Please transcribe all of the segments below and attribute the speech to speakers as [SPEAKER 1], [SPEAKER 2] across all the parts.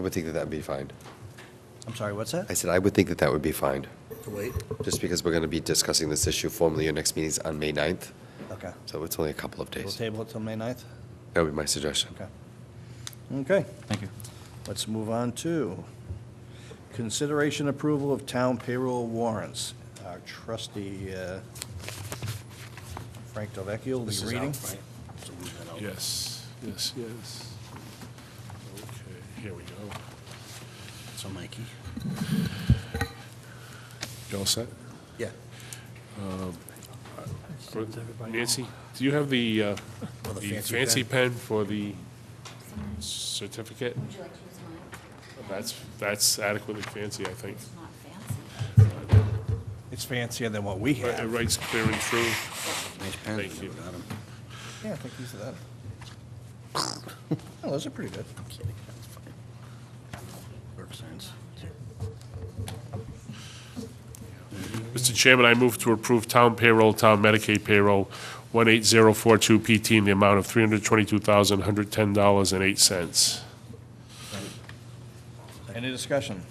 [SPEAKER 1] I would think that that'd be fine.
[SPEAKER 2] I'm sorry, what's
[SPEAKER 1] I
[SPEAKER 2] that?
[SPEAKER 1] said, I would think that that would be fine,
[SPEAKER 3] To wait?
[SPEAKER 1] just because we're going to be discussing this issue formally. Your next meeting's on May 9th,
[SPEAKER 2] Okay.
[SPEAKER 1] so it's only a couple of
[SPEAKER 2] We'll
[SPEAKER 1] days.
[SPEAKER 2] table it till May 9th?
[SPEAKER 1] That would be my suggestion.
[SPEAKER 2] Okay. Okay,
[SPEAKER 4] Thank you.
[SPEAKER 2] let's move on to consideration approval of town payroll warrants. Our trustee, uh, Frank Delvecchio, will be
[SPEAKER 3] This is out,
[SPEAKER 2] reading.
[SPEAKER 3] right? So move that out.
[SPEAKER 5] Yes, yes, yes. Okay, here we go.
[SPEAKER 3] So Mikey?
[SPEAKER 5] You all set?
[SPEAKER 3] Yeah.
[SPEAKER 5] Nancy, do you have the, uh,
[SPEAKER 3] Oh, the
[SPEAKER 5] the
[SPEAKER 3] fancy
[SPEAKER 5] fancy
[SPEAKER 3] pen?
[SPEAKER 5] pen for the certificate?
[SPEAKER 6] Would you like to use mine?
[SPEAKER 5] That's, that's adequately fancy, I think.
[SPEAKER 6] It's not fancy.
[SPEAKER 2] It's fancier than what we
[SPEAKER 5] It
[SPEAKER 2] have.
[SPEAKER 5] writes clear and true.
[SPEAKER 3] Nice pen.
[SPEAKER 5] Thank you.
[SPEAKER 3] Without 'em.
[SPEAKER 2] Yeah, I think these are that. Oh, those are pretty good.
[SPEAKER 3] I'm kidding. That's fine. Work signs.
[SPEAKER 5] Mr. Chairman, I move to approve town payroll, town Medicaid payroll, 18042 PT in the amount of $322,110.08.
[SPEAKER 2] Any discussion?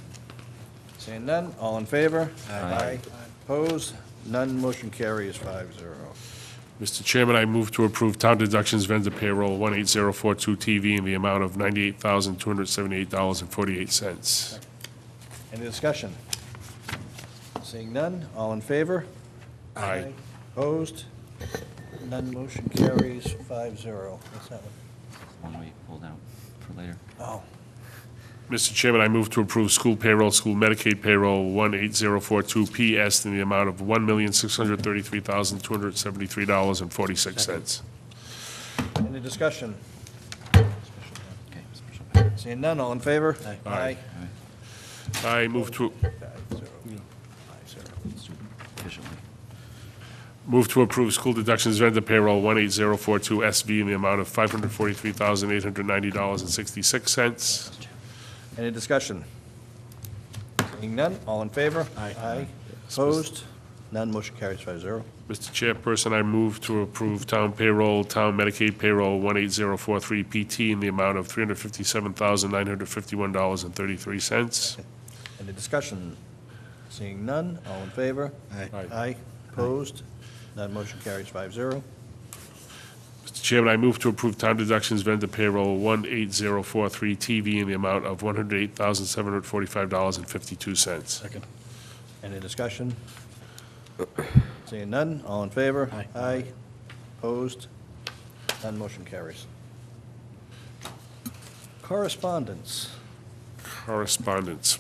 [SPEAKER 2] Seeing none, all in favor? Aye. Opposed? None, motion carries five zero.
[SPEAKER 5] Mr. Chairman, I move to approve town deductions vendor payroll 18042 TV in the amount of $98,278.48.
[SPEAKER 2] Any discussion? Seeing none, all in favor?
[SPEAKER 5] Aye.
[SPEAKER 2] Opposed? None motion carries 5-0. What's that one?
[SPEAKER 4] One we pulled out for later.
[SPEAKER 2] Oh,
[SPEAKER 5] Mr. Chairman, I move to approve school payroll, school Medicaid payroll 18042 PS in the amount of $1,633,273.46.
[SPEAKER 2] any discussion?
[SPEAKER 4] Okay, special pass.
[SPEAKER 2] Seeing none, all in favor?
[SPEAKER 5] Aye. I move to,
[SPEAKER 2] Five zero. Five zero.
[SPEAKER 4] Let's do it Efficiently.
[SPEAKER 5] move to approve school deductions vendor payroll 18042 SV in the amount of $543,890.66.
[SPEAKER 2] Any discussion? Seeing none, all in favor? Aye. Aye. Opposed? None motion carries 5-0.
[SPEAKER 5] Mr. Chairperson, I move to approve town payroll, town Medicaid payroll 18043 PT in the amount of $357,951.33.
[SPEAKER 2] Any discussion? Seeing none, all in favor?
[SPEAKER 3] Aye.
[SPEAKER 2] Aye. Opposed? None motion carries 5-0.
[SPEAKER 5] Mr. Chairman, I move to approve town deductions vendor payroll 18043 TV in the amount of $108,745.52.
[SPEAKER 3] Second.
[SPEAKER 2] Any discussion? Seeing none, all in favor?
[SPEAKER 3] Aye.
[SPEAKER 2] Aye. Opposed? None motion carries. Correspondence.
[SPEAKER 5] correspondence.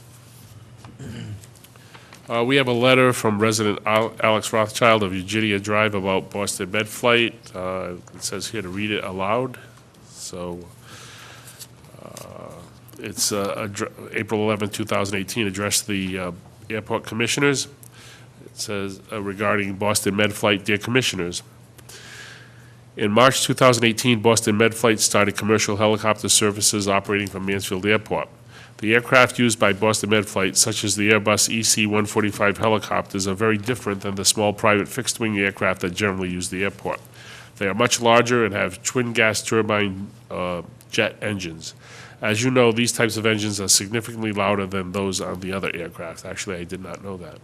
[SPEAKER 5] Uh, We have a letter from resident Al- Alex Rothschild of Eugenia Drive about Boston Med flight. Uh, It says here to read it aloud, so uh, it's uh, addr- April 11, 2018, addressed to the uh, airport commissioners. It says uh, regarding Boston Med flight, dear commissioners, in March 2018, Boston Med Flight started commercial helicopter services operating from Mansfield Airport. The aircraft used by Boston Med Flight, such as the Airbus E EC-145 helicopters, are very different than the small private fixed-wing aircraft that generally use the airport. They are much larger and have twin gas turbine uh, jet engines. As you know, these types of engines are significantly louder than those on the other aircraft. Actually, I did not know that.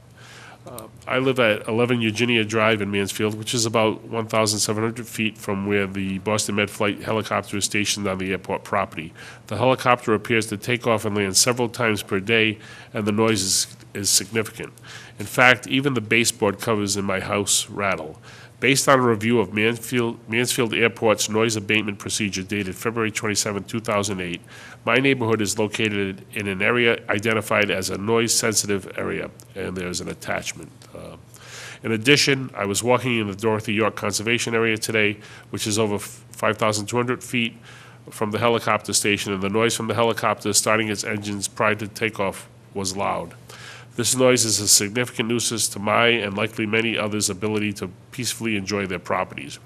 [SPEAKER 5] I live at 11 Eugenia Drive in Mansfield, which is about 1,700 feet from where the Boston Med Flight helicopter is stationed on the airport property. The helicopter appears to take off and land several times per day, and the noise is, is significant. In fact, even the baseboard covers in my house rattle. Based on a review of Mansfield, Mansfield Airport's noise abatement procedure dated February 27, 2008, my neighborhood is located in an area identified as a noise-sensitive area, and there's an attachment. Uh, In addition, I was walking in the Dorothy York Conservation Area today, which is over 5,200 feet from the helicopter station, and the noise from the helicopter starting its engines prior to takeoff was loud. This noise is a significant nuisance to my and likely many others' ability to peacefully enjoy their properties.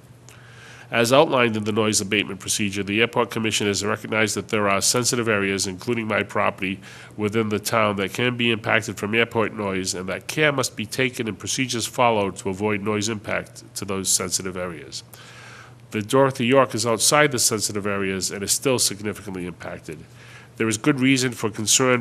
[SPEAKER 5] As outlined in the noise abatement procedure, the Airport Commission has recognized that there are sensitive areas, including my property, within the town that can be impacted from airport noise, and that care must be taken and procedures followed to avoid noise impact to those sensitive areas. The Dorothy York is outside the sensitive areas and is still significantly impacted. There is good reason for concern